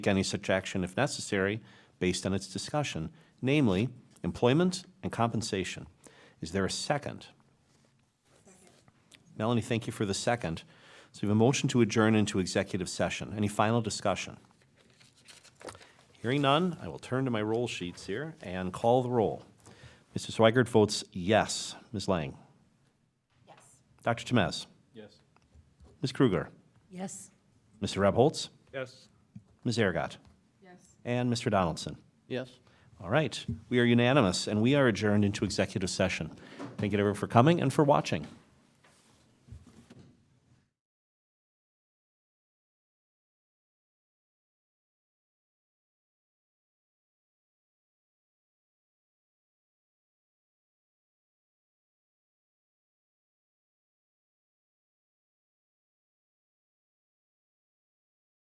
any such action if necessary based on its discussion, namely employment and compensation. Is there a second? Melanie, thank you for the second. So we have a motion to adjourn into executive session. Any final discussion? Hearing none, I will turn to my roll sheets here and call the roll. Mr. Swigert votes yes. Ms. Lang? Yes. Dr. Temez? Yes. Ms. Kruger? Yes. Mr. Rebholz? Yes. Ms. Aragot? Yes. And Mr. Donaldson? Yes. All right, we are unanimous, and we are adjourned into executive session. Thank you everyone for coming and for watching.